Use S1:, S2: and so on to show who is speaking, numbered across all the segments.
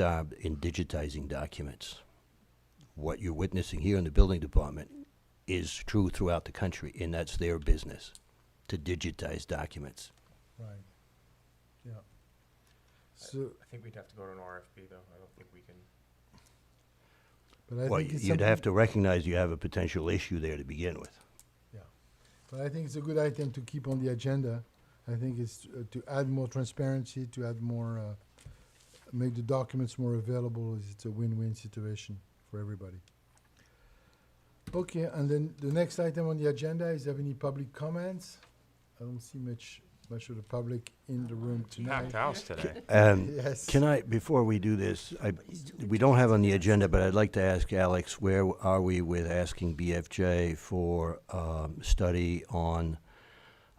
S1: uh, in digitizing documents. What you're witnessing here in the building department is true throughout the country, and that's their business, to digitize documents.
S2: Right. Yeah. So,
S3: I think we'd have to go to an RFP, though. I don't think we can.
S2: but I
S1: Well,
S2: think it's
S1: you'd
S2: something-
S1: have to recognize you have a potential issue there to begin with.
S2: Yeah, but I think it's a good item to keep on the agenda. I think it's uh, to add more transparency, to add more, uh, make the documents more available. It's a win-win situation for everybody. Okay, and then the next item on the agenda is have any public comments? I don't see much, much of the public in the room tonight.
S3: house today.
S1: Um,
S2: Yes.
S1: Can I, before we do this, I, we don't have on the agenda, but I'd like to ask Alex, where are we with asking BFJ for, um, study on,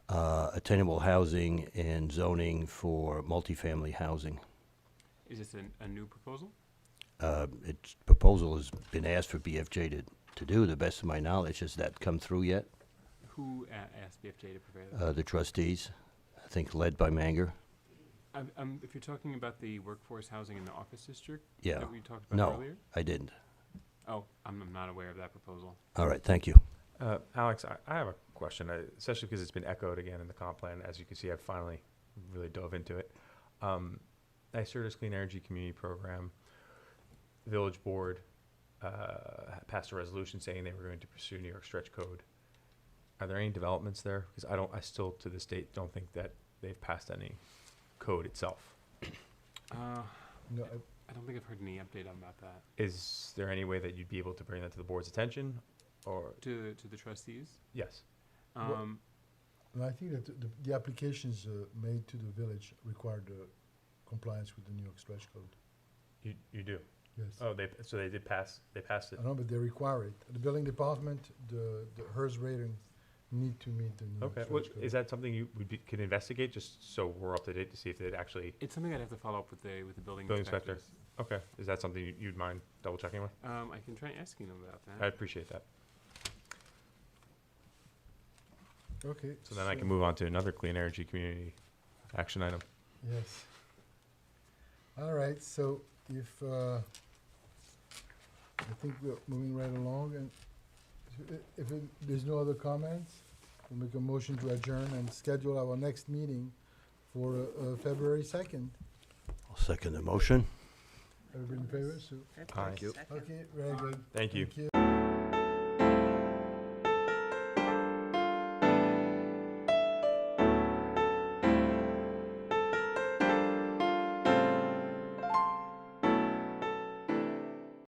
S1: uh, attainable housing and zoning for multifamily housing?
S4: Is this a, a new proposal?
S1: Uh, its proposal has been asked for BFJ to, to do, the best of my knowledge. Has that come through yet?
S4: Who a- asked BFJ to prepare that?
S1: Uh, the trustees, I think led by Manger?
S4: Um, um, if you're talking about the workforce housing in the office district
S1: Yeah.
S4: that we talked about
S1: No,
S4: earlier?
S1: I didn't.
S4: Oh, I'm, I'm not aware of that proposal.
S1: All right, thank you.
S3: Uh, Alex, I, I have a question, uh, especially because it's been echoed again in the comp plan. As you can see, I've finally really dove into it. Um, NYSERDA's Clean Energy Community Program, Village Board uh, passed a resolution saying they were going to pursue New York Stretch Code. Are there any developments there? Because I don't, I still to this date don't think that they've passed any code itself.
S4: Uh,
S2: No, I-
S4: I don't think I've heard any update on about that.
S3: Is there any way that you'd be able to bring that to the board's attention? Or,
S4: To, to the trustees?
S3: yes.
S2: Well-
S4: Um,
S2: no, I think that the, the applications uh, made to the village required uh, compliance with the New York stretch code.
S3: You, you do.
S2: Yes.
S3: Oh, they so they did pass. They passed it.
S2: I know, but they require it. The building department, the, the HERS rating need to meet the new.
S3: Okay.
S2: stretch
S3: What,
S2: code.
S3: is that something you would be, can investigate just so we're up to date to see if it actually?
S4: it's something I'd have to follow up with the, with the building
S3: Building inspector.
S4: inspectors.
S3: Okay. Is that something you- you'd mind double checking with?
S4: Um, I can try asking them about
S3: I
S4: that.
S3: appreciate that.
S2: Okay.
S3: So then I can move on to another clean energy community action item.
S2: Yes. All right, so if, uh, I think we're moving right along and i- if it- there's no other comments, we'll make a motion to adjourn and schedule our next meeting for uh, uh, February second.
S1: I'll second the motion.
S2: Everybody in favor? So,
S3: Thank you.
S2: okay, very good.
S3: Thank you.
S2: Thank you.